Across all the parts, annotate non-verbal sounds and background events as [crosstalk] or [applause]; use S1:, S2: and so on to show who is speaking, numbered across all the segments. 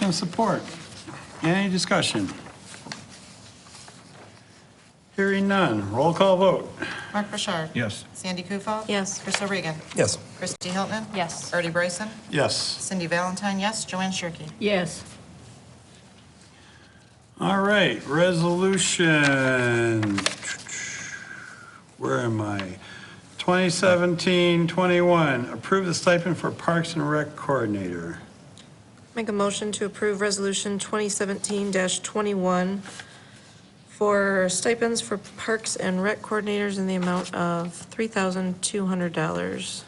S1: have support? Any discussion? Hearing none, roll call vote.
S2: Mark Bouchard.
S3: Yes.
S2: Sandy Kufal.
S4: Yes.
S2: Crystal Regan.
S5: Yes.
S2: Kristi Hilton.
S4: Yes.
S2: Artie Bryson.
S1: Yes.
S2: Cindy Valentine, yes. Joanne Shirkey.
S4: Yes.
S1: All right, resolution, where am I? 2017-21, approve the stipend for Parks and Rec Coordinator.
S4: Make a motion to approve Resolution 2017-21 for stipends for Parks and Rec Coordinators in the amount of $3,200,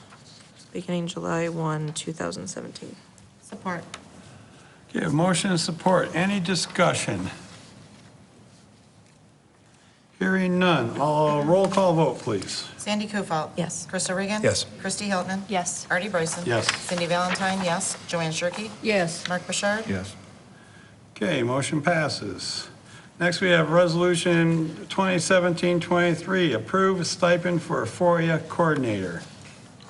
S4: beginning July 1, 2017.
S2: Support.
S1: Okay, a motion and support. Any discussion? Hearing none. I'll roll call vote, please.
S2: Sandy Kufal.
S4: Yes.
S2: Crystal Regan.
S5: Yes.
S2: Kristi Hilton.
S4: Yes.
S2: Artie Bryson.
S1: Yes.
S2: Cindy Valentine, yes. Joanne Shirkey.
S4: Yes.
S2: Mark Bouchard.
S3: Yes.
S1: Okay, motion passes. Next, we have Resolution 2017-23, approve stipend for a FOIA coordinator.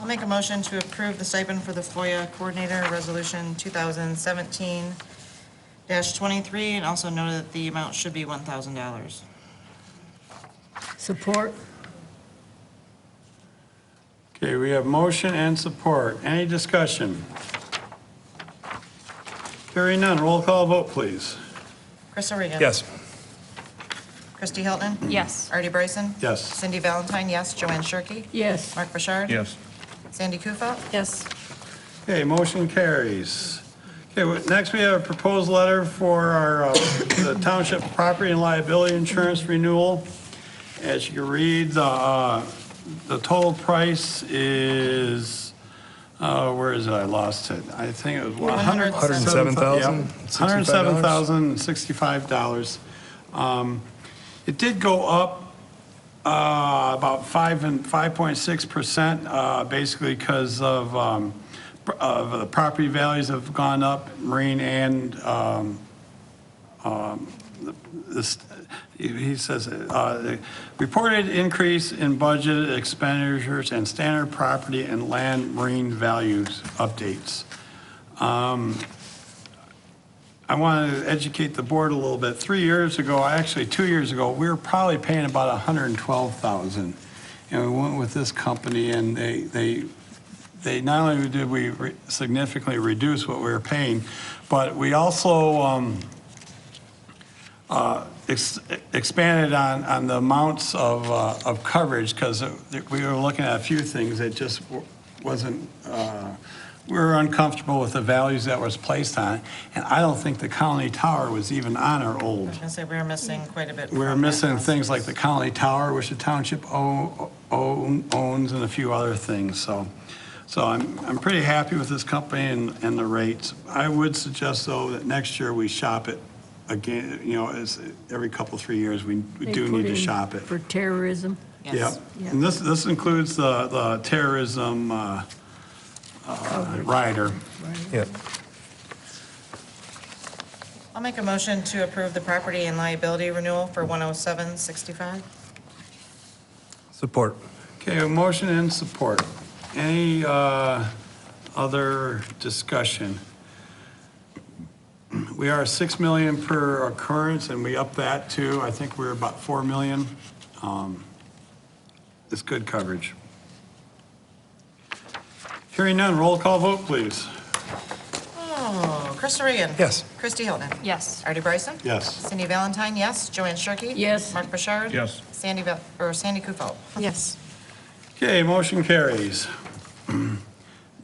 S2: I'll make a motion to approve the stipend for the FOIA Coordinator, Resolution 2017-23, and also note that the amount should be $1,000.
S6: Support?
S1: Okay, we have motion and support. Any discussion? Hearing none. Roll call vote, please.
S2: Crystal Regan.
S5: Yes.
S2: Kristi Hilton.
S4: Yes.
S2: Artie Bryson.
S1: Yes.
S2: Cindy Valentine, yes. Joanne Shirkey.
S6: Yes.
S2: Mark Bouchard.
S3: Yes.
S2: Sandy Kufal.
S4: Yes.
S1: Okay, motion carries. Okay, well, next we have a proposed letter for our, uh, the township property and liability insurance renewal. As you can read, the, uh, the total price is, uh, where is it? I lost it. I think it was one hundred. Hundred seven thousand sixty-five dollars. Um, It did go up uh, about 5 and 5.6%, uh, basically because of, um, pr- of the property values have gone up, marine and, um, um, the- this- he he says, uh, the reported increase in budget expenditures and standard property and land marine values updates. I want to educate the board a little bit. Three years ago, actually, two years ago, we were probably paying about 112,000. And we went with this company and they, they, they, not only did we re- significantly reduce what we were paying, but we also um, uh, ex- expanded on, on the amounts of, uh, of coverage because we were looking at a few things that just w- wasn't, uh, we were uncomfortable with the values that was placed on it. And I don't think the county tower was even on our
S2: I
S1: old
S2: was going to say, we're missing quite a bit.
S1: we're
S2: from that
S1: missing
S2: process.
S1: things like the Conley Tower, which the township o- own- owns, and a few other things, so. So I'm, I'm pretty happy with this company and, and the rates. I would suggest, though, that next year we shop it again, you know, as, every couple, three years, we we
S6: They
S1: do
S6: put
S1: need to
S6: in
S1: shop it.
S6: For terrorism?
S2: Yes.
S1: Yep, and this, this includes the, the terrorism uh, uh, rider.
S5: Yeah.
S2: I'll make a motion to approve the property and liability renewal for 10765.
S5: Support.
S1: Okay, a motion and support. Any uh, other discussion? We are 6 million per occurrence, and we up that to, I think we're about 4 million. Um, It's good coverage. Hearing none, roll call vote, please.
S2: Oh, Crystal Regan.
S5: Yes.
S2: Kristi Hilton.
S4: Yes.
S2: Artie Bryson.
S1: Yes.
S2: Cindy Valentine, yes. Joanne Shirkey.
S6: Yes.
S2: Mark Bouchard.
S3: Yes.
S2: Sandy, Val- or Sandy Kufal.
S4: Yes.
S1: Okay, motion carries. [clears throat]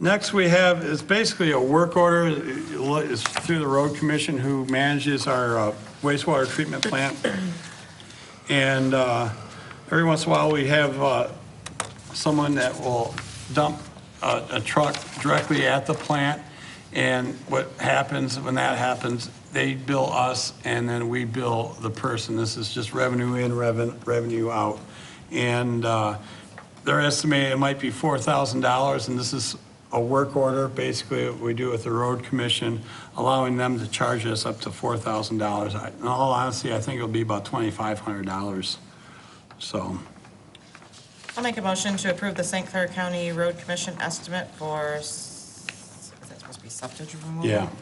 S1: Next we have, is basically a work order, uh, it's through the road commission who manages our uh, wastewater treatment plant. And uh, every once in a while, we have uh, someone that will dump a a truck directly at the plant. And what happens, when that happens, they bill us and then we bill the person. This is just revenue in, reven- revenue out. And uh, they're estimating it might be $4,000 and this is a work order, basically what we do with the road commission, allowing them to charge us up to $4,000. I- In all honesty, I think it'll be about $2,500. So,
S2: I'll make a motion to approve the St. Clair County Road Commission estimate for, s- is that supposed to be septic removal?
S1: yeah.